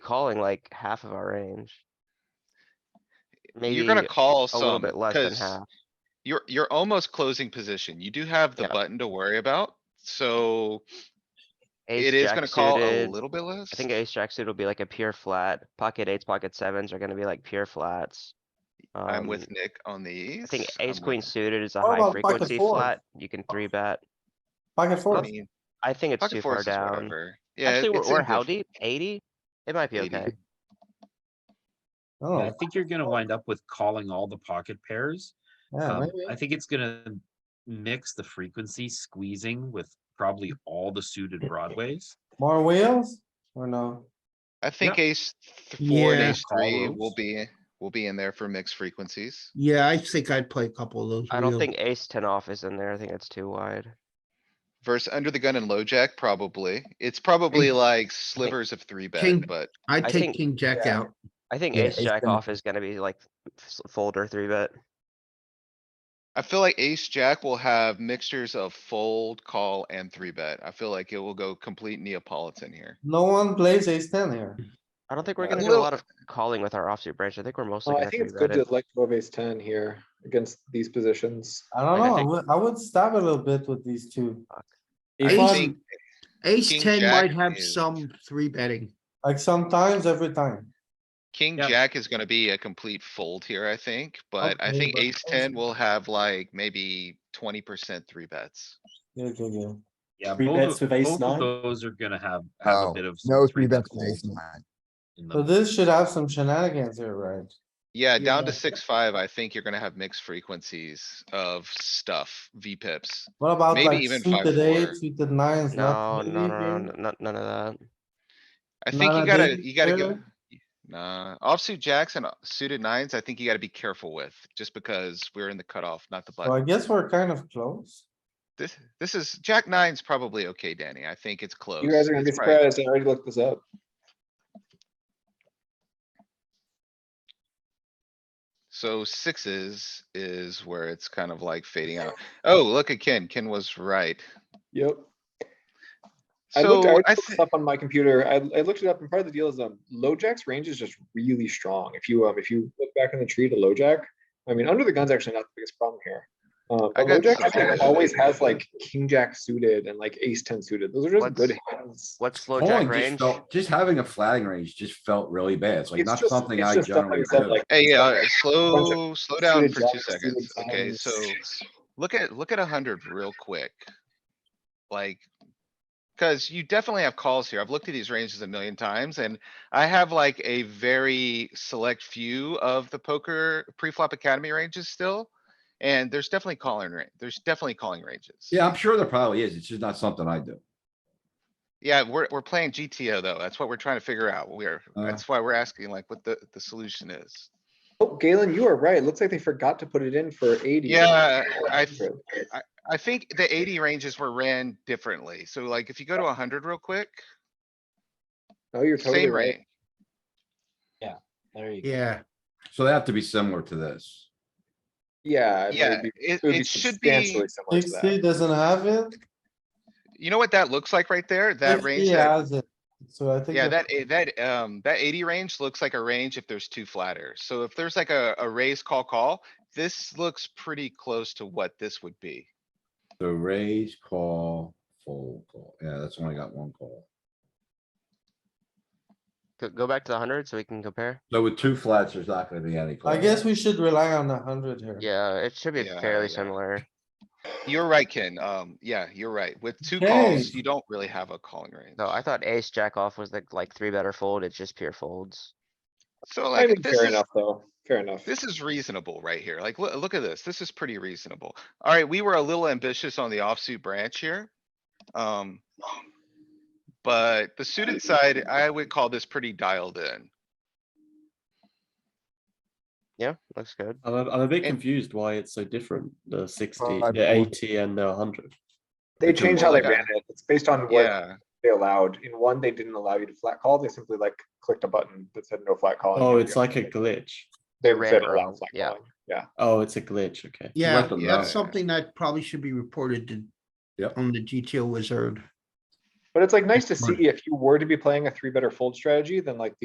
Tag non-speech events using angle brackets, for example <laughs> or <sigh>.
calling like half of our range. You're gonna Maybe call a little some, bit less than cause half. you're, you're almost closing position. You do have the Yeah. button to worry about, so Ace, it is jack gonna call a suited, little bit less. I think ace jack suited will be like a pure flat. Pocket eights, pocket sevens are gonna be like pure flats. I'm Um, with Nick on these. I think I'm ace with queen Nick. suited is a What about high pocket frequency fours? flat. You can three bet. Pocket I fours, mean, I think it's too pocket far fours is down. whatever. Yeah, Actually, we're- it's we're how indifferent. deep? Eighty? It might be 80. okay. Yeah, oh, I think you're gonna wind up with calling all the pocket pairs. yeah, Um, I maybe, think it's gonna mix the frequency squeezing with probably all the <laughs> suited broadways. more wheels or no? I think ace th- four and Yeah. ace three will Follows. be, will be in there for mixed frequencies. Yeah, I think I'd play a couple of those. I don't real- think ace ten off is in there. I think it's too wide. Versus under the gun and low jack, probably. It's probably like slivers of three King- bet, but I'd I take think- king jack Yeah. out. I think Yeah, ace ace jack 10 off is gonna be like s- fold or three bet. I feel like ace jack will have mixtures of fold, call, and three bet. I feel like it will go complete Neapolitan here. No one plays ace ten here. I don't think we're Uh, gonna do a little- lot of calling with our offsuit branch. I think we're mostly Well, I gonna think three it's good bet to it. elect above ace ten here against these positions. I Like, don't I know, I think- would, I would stab a little bit with these two. I Ace- think king Ace ten jack might have is- some three betting. Like sometimes, every time. King Yeah. jack is gonna be a complete fold here, I think, but I Okay, think but ace ace- ten will have like maybe twenty percent three bets. Yeah, yeah, yeah. Yeah, Three both bets of, with ace both nine? of those are gonna have, have a No, bit of. Oh, No three bet bets with ace fold nine. in So them. this should have some shenanigans here, right? Yeah, down to Yeah. six, five, I think you're gonna have mixed frequencies of stuff, V pips. What about Maybe like even five, suited four. eight, suited nines? No, not no, no, really no, here? no, no- none of that. I think you Nada gotta, big you gotta go, there? nah, offsuit jacks and uh, suited nines, I think you gotta be careful with, just because we're in the cutoff, not the So I button. guess we're kind of close. This, this is, jack nine's probably okay, Danny. I think it's close. You guys are gonna be It's probably- surprised. I already looked this up. So sixes is where it's kind of like fading <laughs> out. Oh, look at Ken. Ken was right. Yep. I looked, I So looked I, this thi- up on my computer. I, I looked it up and part of the deal is, um, low jack's range is just really strong. If you, um, if you look back in the tree to low jack, I mean, under the gun's actually not the biggest problem here. Um, I but low got jack I surprised. think always has like king jack suited and like ace ten suited. Those are just good hands. What's slow jack Calling just range? felt, just having a flatting range just felt really bad. It's like It's not just- something it's I just stuff generally like that, do. like- hey, it's yeah, like- slow, slow down suited for two jacks, suited seconds. Okay, tens. so look at, look at a hundred real quick. Like, cuz you definitely have calls here. I've looked at these ranges a million times and I have like a very select few of the poker pre-flop academy ranges still. And there's definitely calling, ra- there's definitely calling ranges. Yeah, I'm sure there probably is. It's just not something I do. Yeah, we're, we're playing GTO though. That's what we're trying to figure out. We're, Uh-huh. Uh. that's why we're asking like what the, the solution is. Oh, Galen, you are right. Looks like they forgot to put it in for eighty. Yeah, I, I think the eighty ranges were ran differently. So like if you go to hundred real quick, No, you're totally same right. rate. There you Yeah, So they have to be similar to this. Yeah. it Yeah, would be- it, would be it should be, substantially similar to that. Sixty doesn't have it. you know what that looks like right there? That 50 range, that- has it. So I think. yeah, that- that, eh, that, um, that eighty range looks like a range if there's two flatter. So if there's like a, a raise call call, this looks pretty close to what this would be. So raise, call, fold, call. Yeah, that's when I got one call. Go- Go back to the hundred so we can compare. So with two flats, there's not gonna be any. I call. guess we should rely on a hundred here. Yeah, it should be Yeah, fairly yeah. similar. You're right, Ken. Um, yeah, you're right. With two Okay. calls, you don't really have a calling range. No, I thought ace jack off was like, like three better fold. It's just pure folds. So I like, mean, this fair is, enough, though. Fair enough. this is reasonable right here. Like, look, look at this. This is pretty reasonable. Alright, we were a little ambitious on the offsuit branch here. Um. But the suited side, I would call this pretty dialed in. Yeah, looks good. I'm a, I'm a bit And- confused why it's so different, the 60, Five the more. 80 and the 100. They It's a changed how they mulligan. ran it. It's based on what Yeah, they allowed. In one, they didn't allow you to flat call. They simply like clicked a button that said no flat calling. Oh, and it's you're- like a glitch. They red said or allow a- flat yeah. calling. Yeah. Oh, it's a glitch, okay. yeah, them know. that's something that probably should be reported to. Yep. On the GTO wizard. But it's like nice to Smart. see if you were to be playing a three better fold strategy, then like